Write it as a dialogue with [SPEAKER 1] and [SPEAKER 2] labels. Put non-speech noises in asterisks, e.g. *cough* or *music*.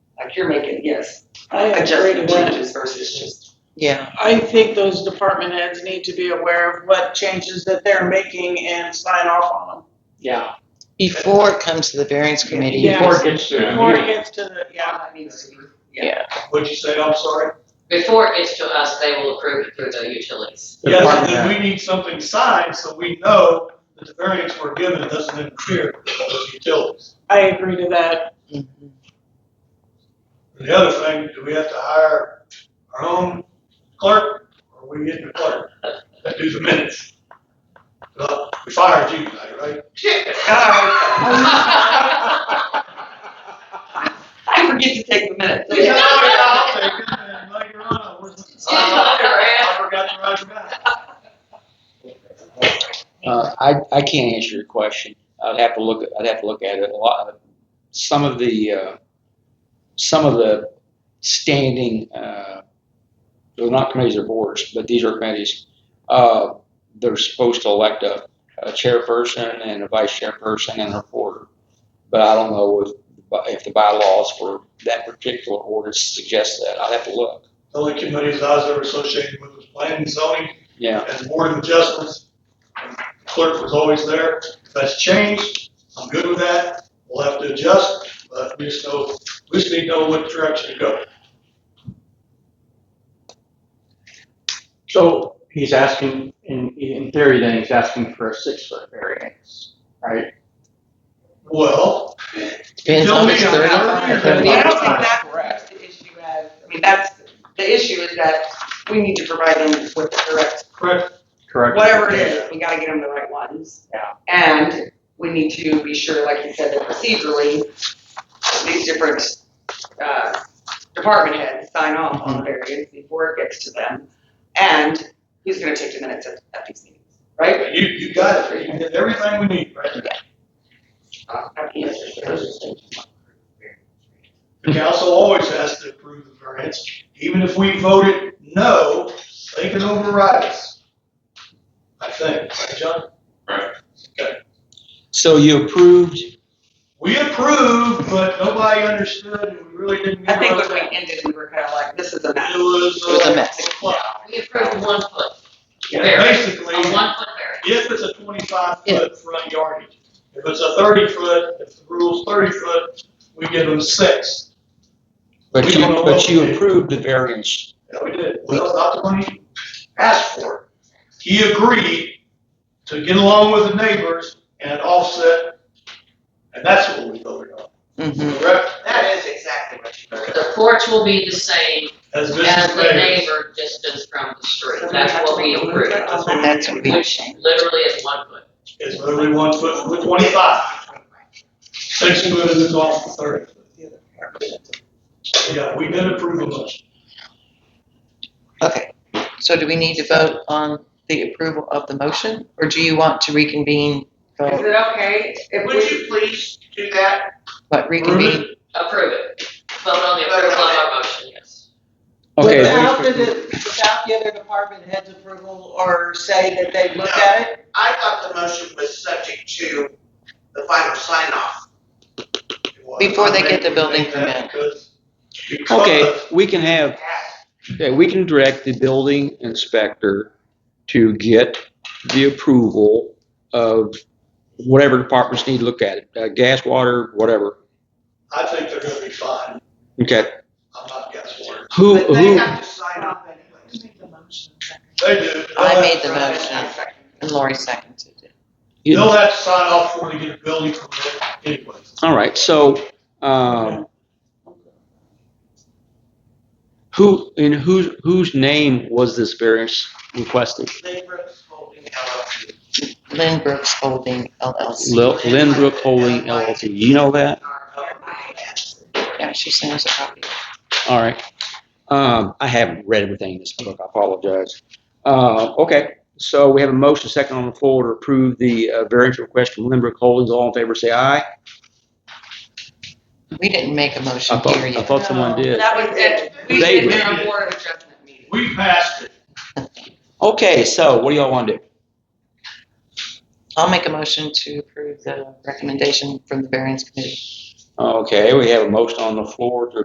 [SPEAKER 1] you're making, yes,
[SPEAKER 2] I agree
[SPEAKER 1] adjusting
[SPEAKER 2] with that.
[SPEAKER 1] changes versus just.
[SPEAKER 3] Yeah,
[SPEAKER 2] I think those department heads need to be aware of what changes that they're making and sign off on them.
[SPEAKER 1] Yeah.
[SPEAKER 3] before it comes to the variance committee.
[SPEAKER 2] Yeah.
[SPEAKER 4] Before it gets to the
[SPEAKER 2] Before it
[SPEAKER 4] meeting.
[SPEAKER 2] gets to the, yeah.
[SPEAKER 1] that needs to be.
[SPEAKER 4] What'd you say, I'm sorry?
[SPEAKER 5] Before it gets to us, they will approve it through the utilities.
[SPEAKER 4] The
[SPEAKER 6] Yes,
[SPEAKER 4] department
[SPEAKER 6] and
[SPEAKER 4] head.
[SPEAKER 6] we need something signed so we know that the variance we're given doesn't interfere with those utilities.
[SPEAKER 2] I agree to that.
[SPEAKER 3] Mhm.
[SPEAKER 6] And the other thing, do we have to hire our own clerk or are we getting a clerk that do the minutes? Well, we fired you tonight,
[SPEAKER 5] *laughs*
[SPEAKER 6] right?
[SPEAKER 1] I forget to take the minutes.
[SPEAKER 6] Yeah, I'll take it, and Later on, I wasn't. I forgot to write it down.
[SPEAKER 7] Uh, I, I can't answer your question. I'd have to look, I'd have to look at it a lot. Some of the, uh, some of the standing, uh, they're not committees or boards, but these are committees. Uh, they're supposed to elect a, a chairperson and a vice chairperson and a reporter. But I don't know if, if the bylaws for that particular order suggest that. I'd have to look.
[SPEAKER 6] The only committees I was ever associated with was planning and zoning
[SPEAKER 7] Yeah.
[SPEAKER 6] as board of adjustments. Clerk was always there. If that's changed, I'm good with that. We'll have to adjust, but we just know, we just need to know what direction to go.
[SPEAKER 4] So he's asking, in, in theory then, he's asking for a six foot variance, right?
[SPEAKER 6] Well,
[SPEAKER 3] Depends on if it's
[SPEAKER 6] Tell me, I'm
[SPEAKER 3] thirty-five or
[SPEAKER 6] out
[SPEAKER 1] I
[SPEAKER 6] of
[SPEAKER 1] mean, I don't
[SPEAKER 3] thirty-eight.
[SPEAKER 1] think that that's the issue as, I mean, that's, the issue is that we need to provide them with the correct,
[SPEAKER 6] correct,
[SPEAKER 4] Correct?
[SPEAKER 1] whatever it is, we gotta get them the right ones.
[SPEAKER 4] Yeah.
[SPEAKER 1] And we need to be sure, like you said, that procedurally, these different, uh, department heads sign off
[SPEAKER 4] Mm-hmm.
[SPEAKER 1] on the variance before it gets to them. And who's gonna take the minutes at, at these meetings, right?
[SPEAKER 6] you, you got it. You did everything we need, right?
[SPEAKER 1] Uh, I mean, it's- it's-
[SPEAKER 6] The council always has to approve the variance. Even if we voted no, they can override us. I think, right, John?
[SPEAKER 7] So you approved
[SPEAKER 6] We approved, but nobody understood and we really didn't.
[SPEAKER 1] I think
[SPEAKER 6] get
[SPEAKER 1] when we ended, we were kinda like, this is a
[SPEAKER 6] It
[SPEAKER 1] mess.
[SPEAKER 6] was.
[SPEAKER 3] It was a
[SPEAKER 6] uh,
[SPEAKER 3] mess.
[SPEAKER 5] We approved one foot,
[SPEAKER 6] Basically,
[SPEAKER 5] a one foot variance.
[SPEAKER 6] if it's a twenty-five foot front yardage, if it's a thirty foot, if the rule's thirty foot, we give them six.
[SPEAKER 7] But
[SPEAKER 6] We
[SPEAKER 7] you,
[SPEAKER 6] don't know
[SPEAKER 7] but
[SPEAKER 6] what we
[SPEAKER 7] you
[SPEAKER 6] did.
[SPEAKER 7] approved the variance.
[SPEAKER 6] And we did, well, not the one he asked for. He agreed to get along with the neighbors and offset, and that's what we voted on,
[SPEAKER 3] Mhm.
[SPEAKER 6] correct?
[SPEAKER 1] That is exactly what you
[SPEAKER 5] The porch will be the same
[SPEAKER 6] As
[SPEAKER 5] as
[SPEAKER 6] business
[SPEAKER 5] the
[SPEAKER 6] neighbors.
[SPEAKER 5] neighbor distance from the street. That's what we approved.
[SPEAKER 3] That's what we,
[SPEAKER 5] Which literally is one foot.
[SPEAKER 6] It's literally one foot with twenty-five. Six foot is off the thirty. Yeah, we did approve of it.
[SPEAKER 3] okay. So do we need to vote on the approval of the motion, or do you want to reconvene,
[SPEAKER 1] Is
[SPEAKER 3] vote,
[SPEAKER 1] it okay if we?
[SPEAKER 2] Would you please do that?
[SPEAKER 3] what, reconvene?
[SPEAKER 5] Approve it. Vote on the approval of our motion, yes.
[SPEAKER 7] Okay.
[SPEAKER 2] Without the, without the other department heads approval or say that they looked at it?
[SPEAKER 8] I thought the motion was subject to the final sign off.
[SPEAKER 3] Before they get the building permit.
[SPEAKER 6] Because-
[SPEAKER 7] Okay,
[SPEAKER 6] because
[SPEAKER 7] we can have, okay, we can direct the building inspector to get the approval of whatever departments need to look at it, uh, gas, water, whatever.
[SPEAKER 6] I think they're gonna be fine.
[SPEAKER 7] Okay,
[SPEAKER 6] I'm not gas water.
[SPEAKER 7] who,
[SPEAKER 8] But they
[SPEAKER 7] who,
[SPEAKER 8] have to sign off anyways.
[SPEAKER 6] They do.
[SPEAKER 3] I
[SPEAKER 6] They'll
[SPEAKER 3] made the
[SPEAKER 6] have to sign
[SPEAKER 3] motion, and Lori seconded it.
[SPEAKER 6] off. They'll have to sign off before they get a building permit anyways.
[SPEAKER 7] all right, so, um, who, in whose, whose name was this variance requested?
[SPEAKER 8] Labor's holding LLC.
[SPEAKER 3] Lynn Brooks Holding LLC.
[SPEAKER 7] Lil- Lindbrook Holding LLC, you know that?
[SPEAKER 3] Yeah, she sends a copy.
[SPEAKER 7] All right. Um, I haven't read everything in this book. I apologize. Uh, okay. So we have a motion second on the floor to approve the uh, variance request from Lindbrook Holdings. All in favor, say aye.
[SPEAKER 3] We didn't make a
[SPEAKER 7] I
[SPEAKER 3] motion
[SPEAKER 7] thought,
[SPEAKER 3] here
[SPEAKER 7] I
[SPEAKER 3] yet.
[SPEAKER 7] thought someone did.
[SPEAKER 1] That was it. We
[SPEAKER 7] They
[SPEAKER 1] did
[SPEAKER 6] did.
[SPEAKER 1] our board of adjustment meeting.
[SPEAKER 6] We passed it.
[SPEAKER 7] Okay. So what do y'all want to do?
[SPEAKER 3] I'll make a motion to approve the recommendation from the variance committee.
[SPEAKER 7] Okay. We have a motion on the floor to